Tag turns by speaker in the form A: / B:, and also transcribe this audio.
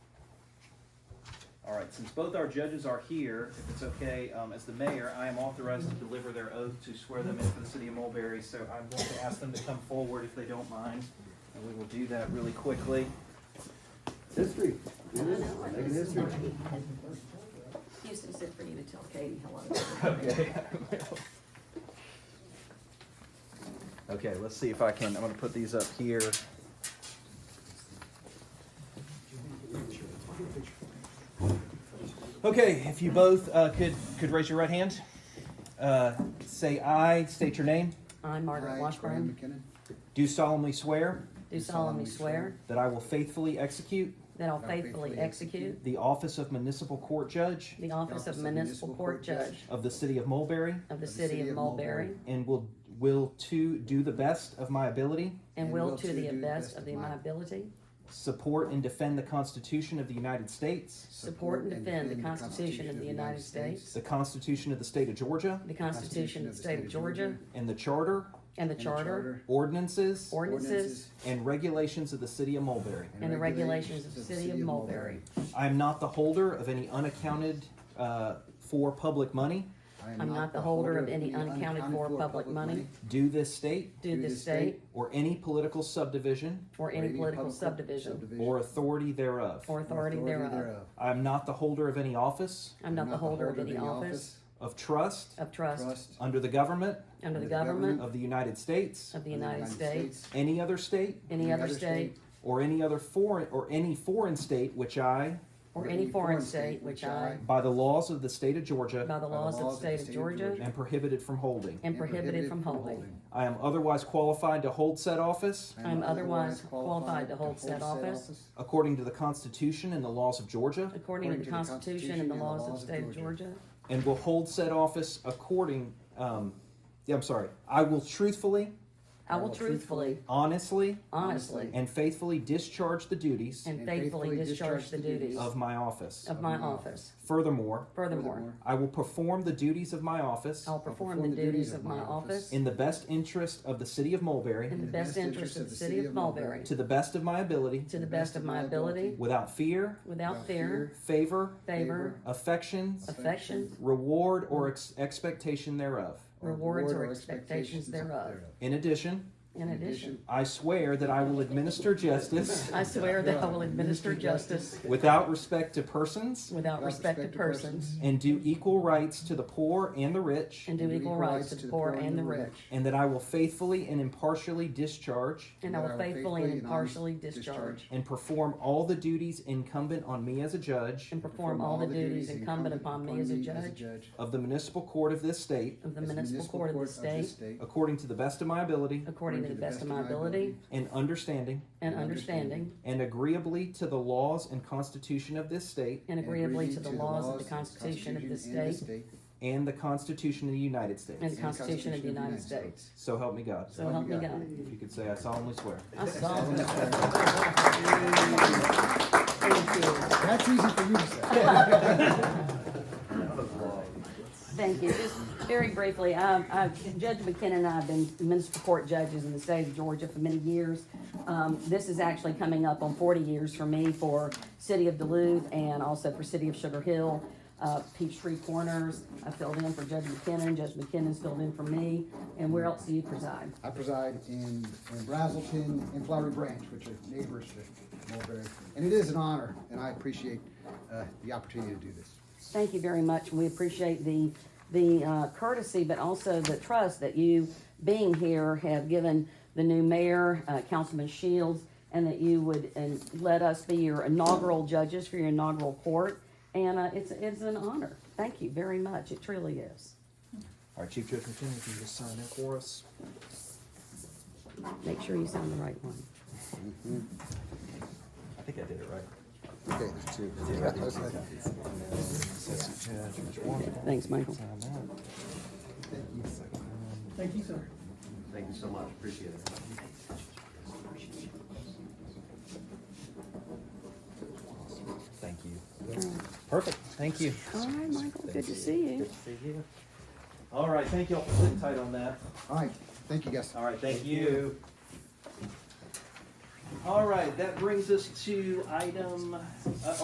A: since both our judges are here, if it's okay, um, as the mayor, I am authorized to deliver their oath to swear them in for the city of Mulberry, so I'm going to ask them to come forward if they don't mind, and we will do that really quickly.
B: History. It is, making history.
C: Houston said for you to tell Katie hello.
A: Okay. Okay, let's see if I can, I'm gonna put these up here. Okay, if you both uh, could, could raise your right hand. Uh, Say aye, state your name.
C: I, Margaret Washburn,
A: Do solemnly swear
C: do solemnly swear
A: that I will faithfully execute
C: that I'll faithfully execute
A: the office of municipal court judge
C: the office of municipal court judge
A: of the city of Mulberry
C: of the city of Mulberry,
A: and will, will to do the best of my ability
C: and will to the best of the- my ability
A: Support and defend the Constitution of the United States,
C: support and defend the Constitution of the United States,
A: the Constitution of the State of Georgia,
C: the Constitution of the state of Georgia,
A: and the Charter,
C: and the charter,
A: ordinances,
C: ordinances,
A: and regulations of the City of Mulberry.
C: and the regulations of the city of Mulberry.
A: I am not the holder of any unaccounted uh, for public money
C: I'm not the holder of any unaccounted for public money
A: due this state
C: due this state
A: or any political subdivision
C: or any political subdivision
A: or authority thereof.
C: or authority thereof.
A: I am not the holder of any office
C: I'm not the holder of any office
A: of trust
C: of trust
B: Trust.
A: under the government
C: under the government
A: of the United States,
C: of the United States,
A: any other state,
C: any other state,
A: or any other foreign or any foreign state which I,
C: or any foreign state which I,
A: by the laws of the state of Georgia,
C: by the laws of the state of Georgia,
A: am prohibited from holding.
C: am prohibited from holding.
A: I am otherwise qualified to hold said office
C: I am otherwise qualified to hold said office
A: according to the Constitution and the laws of Georgia,
C: according to the Constitution and the laws of the state of Georgia,
A: and will hold said office according. Um, yeah, I'm sorry. I will truthfully,
C: I will truthfully,
A: honestly,
C: honestly,
A: and faithfully discharge the duties
C: and faithfully discharge the duties
A: of my office.
C: of my office.
A: Furthermore,
C: Furthermore,
A: I will perform the duties of my office
C: I'll perform the duties of my office
A: in the best interest of the city of Mulberry
C: in the best interest of the city of Mulberry,
A: to the best of my ability
C: to the best of my ability,
A: without fear,
C: without fear,
A: favor,
C: favor,
A: affections,
C: affection,
A: reward, or ex- expectation thereof.
C: rewards, or expectations thereof.
A: In addition,
C: In addition,
A: I swear that I will administer justice
C: I swear that I will administer justice
A: without respect to persons
C: without respect to persons
A: and do equal rights to the poor and the rich,
C: and do equal rights to the poor and the rich.
A: and that I will faithfully and impartially discharge
C: And I will faithfully and impartially discharge
A: and perform all the duties incumbent on me as a judge
C: and perform all the duties incumbent upon me as a judge
A: of the municipal court of this state
C: of the municipal court of the state
A: according to the best of my ability
C: according to the best of my ability
A: and understanding
C: and understanding
A: and agreeably to the laws and constitution of this state
C: and agreeably to the laws of the Constitution of this state
A: and the constitution of the United
C: and
A: States.
C: the Constitution of the United States.
A: So help me God.
C: So help me God.
A: If you could say, I solemnly swear.
C: I solemnly swear. Thank you.
B: That's easy for you to say.
C: Thank you. Just very briefly, um, I- Judge McKinnon and I have been municipal court judges in the state of Georgia for many years. Um, This is actually coming up on 40 years for me for City of Duluth and also for City of Sugar Hill, uh, Peachtree Corners. I filled in for Judge McKinnon, Judge McKinnon's filled in for me. And where else do you preside?
B: I preside in, in Brazelton and Flowery Branch, which are neighbors to Mulberry. And it is an honor, and I appreciate, uh, the opportunity to do this.
C: Thank you very much. We appreciate the, the uh, courtesy, but also the trust that you being here have given the new mayor, uh, Councilman Shields, and that you would, and let us be your inaugural judges for your inaugural court. And uh, it's, it's an honor. Thank you very much. It truly is.
A: All right, Chief Judge McKinnon, if you just sign in for us.
C: Make sure you sign the right one.
A: I think I did it right.
B: Okay, that's two.
C: Thanks, Michael.
D: Thank you so much, appreciate it.
A: Thank you. Perfect, thank you.
C: All right, Michael, good to see you.
A: See you. All right, thank y'all for sitting tight on that.
B: All right, thank you, guys.
A: All right, thank you. All right, that brings us to item, uh,